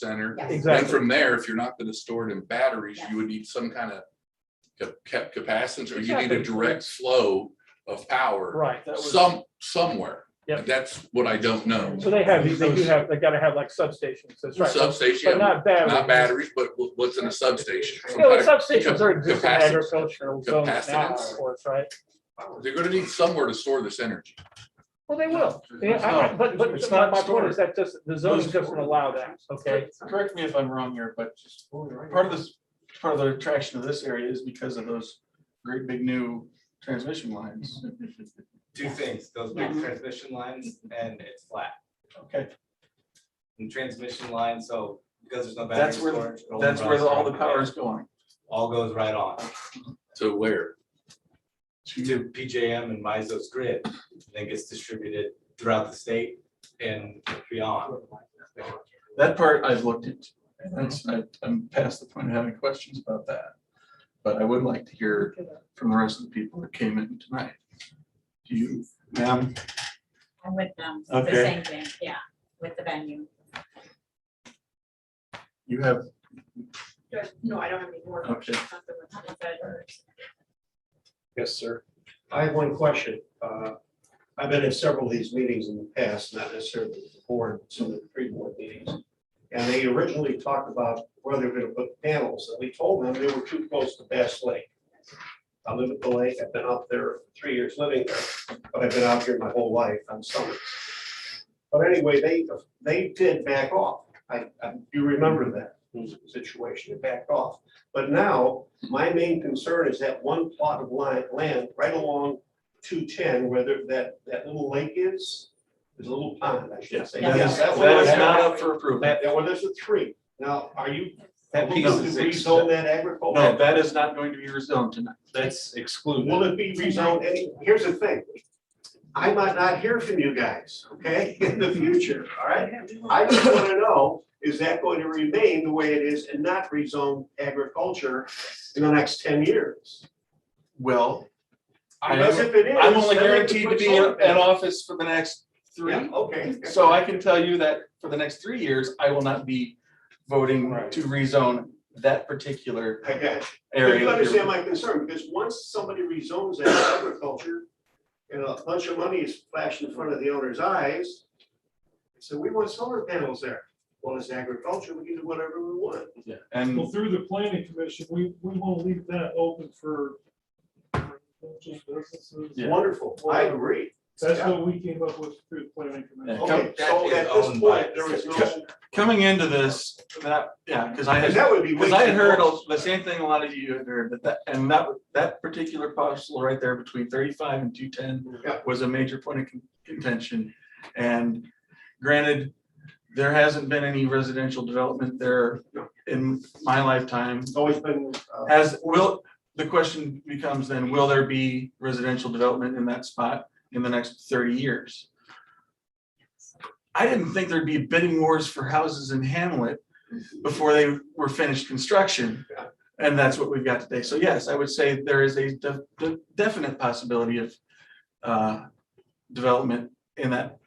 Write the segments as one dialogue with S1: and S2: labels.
S1: center.
S2: Yes.
S1: Then
S3: Exactly.
S1: from there, if you're not gonna store it in batteries,
S2: Yes.
S1: you would need some kind of cap, capacitance, or you need
S3: Exactly.
S1: a direct flow of power
S3: Right. that was-
S1: some, somewhere.
S3: Yep.
S1: That's what I don't know.
S3: So they have, these- they do have, they gotta have like substations, that's right. But
S1: Substation,
S3: not batteries.
S1: not batteries, but wh- what's in a substation? Some
S3: Yeah, well,
S1: kind
S3: substations are existing
S1: capacitance.
S3: agricultural zones now, of
S1: Capacitance.
S3: course, right?
S1: of- They're gonna need somewhere to store this energy.
S3: Well, they will. Yeah, I- I- but, but
S4: It's
S3: my,
S4: not
S3: my point
S4: stored.
S3: is that just, the zoning doesn't allow that, okay?
S4: Correct me if I'm wrong here, but part of this, part of the attraction of this area is because of those great big new transmission lines.
S5: two things, those big transmission lines and it's flat.
S4: Okay,
S5: And transmission line, so because there's no battery
S4: that's where,
S5: storage. it all
S4: that's where
S5: runs
S4: all the
S5: right
S4: power
S5: away.
S4: is going.
S5: All goes right on
S1: To where?
S5: to PJM and MISO's grid, then gets distributed throughout the state and beyond.
S4: That part I've looked into. That's, I, I'm past the point of having questions about that. But I would like to hear from the rest of the people that came in tonight. Do you, ma'am?
S6: I'm with them, it's the
S4: Okay.
S6: same thing, yeah, with the venue.
S4: You have,
S6: No, I don't have any more.
S4: Okay.
S7: Yes, sir. I have one question. Uh, I've been at several of these meetings in the past, not necessarily the board, some of the pre-board meetings. And they originally talked about where they're gonna put panels, and we told them they were too close to Bass Lake. I live at the lake, I've been out there three years living there, but I've been out here my whole life on summers. But anyway, they, they did back off. I, I, you remember that situation, they backed off. But now, my main concern is that one plot of li- land right along two ten, where there- that, that little lake is, there's a little pond, I should say.
S6: Yeah.
S7: Yes, that
S4: that
S7: one-
S4: is not up for approval.
S7: That, well, there's a tree. Now, are you
S5: That
S7: looking
S5: piece
S7: to
S5: is
S7: rezone that agriculture?
S4: No, that is not going to be rezoned tonight.
S5: That's excluded.
S7: Will it be rezoned? Any- Here's the thing. I might not hear from you guys, okay, in the future, all right? I just want to know, is that going to remain the way it is and not rezone agriculture in the next ten years?
S4: Well, I am-
S7: Because if it is.
S4: I'm only
S7: then they can
S4: guaranteed to
S7: put
S4: be in
S7: solar
S4: in office for the next
S7: panels.
S4: three.
S7: Yeah, okay.
S4: So I can tell you that for the next three years, I will not be voting
S7: Right.
S4: to rezone that particular
S7: I got you. But
S4: area.
S7: you understand my concern, because once somebody rezones that agriculture, and a bunch of money is flashed in front of the owner's eyes. So we want solar panels there. Well, it's agriculture, we can do whatever we want.
S4: Yeah, And
S8: Well, through the planning commission, we, we want to leave that open for businesses.
S4: Yeah.
S7: Wonderful, I agree.
S8: That's what we came up with through the planning commission.
S4: Yeah.
S7: Okay, so
S5: That is
S7: at this
S5: owned by-
S7: point, there is no,
S4: coming into this, that, yeah, because I
S7: and
S4: had,
S7: that would be. way
S4: because I had
S7: too
S4: heard
S7: close.
S4: the same thing a lot of you had heard, but that, and that, that particular parcel right there between thirty-five and two-ten
S7: Yeah.
S4: was a major point of con- contention. And granted, there hasn't been any residential development there
S7: No.
S4: in my lifetime.
S7: It's always been, uh,
S4: As will, the question becomes then, will there be residential development in that spot in the next thirty years? I didn't think there'd be bidding wars for houses in Hamlet before they were finished construction.
S7: Yeah.
S4: And that's what we've got today. So yes, I would say there is a de- de- definite possibility of uh, development in that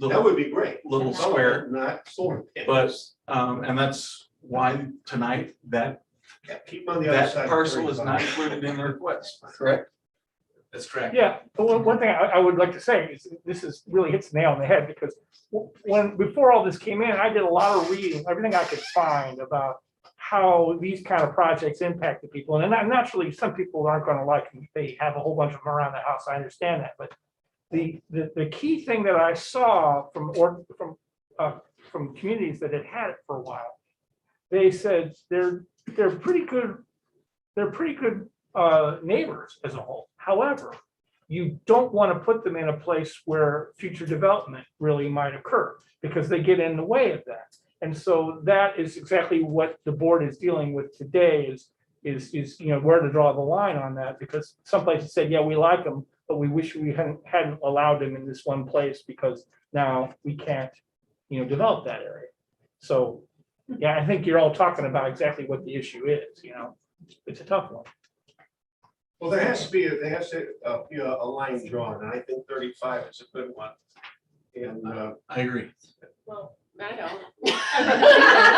S7: that
S4: little,
S7: would be great.
S4: little
S7: Solar,
S4: square.
S7: Not solar.
S4: But,
S7: panels.
S4: um, and that's why tonight that,
S7: Yeah, Keep on the other
S4: that
S7: side. of
S4: parcel is not
S7: 35.
S4: included in the request, correct?
S5: That's correct.
S3: Yeah, but one, one thing I, I would like to say is, this is, really hits the nail on the head, because w- when, before all this came in, I did a lot of reading, everything I could find about how these kind of projects impact the people, and then naturally, some people aren't gonna like them, they have a whole bunch of them around the house, I understand that, but the, the, the key thing that I saw from, or, from, uh, from communities that had had it for a while, they said they're, they're pretty good, they're pretty good, uh, neighbors as a whole. However, you don't want to put them in a place where future development really might occur because they get in the way of that. And so that is exactly what the board is dealing with today is, is, is, you know, where to draw the line on that because some places said, yeah, we like them, but we wish we hadn't, hadn't allowed them in this one place because now we can't, you know, develop that area. So, yeah, I think you're all talking about exactly what the issue is, you know, it's a tough one.
S7: Well, there has to be, there has to, uh, be a, a line drawn, and I think thirty-five is a good one. And, uh,
S4: I agree.
S6: Well, I don't.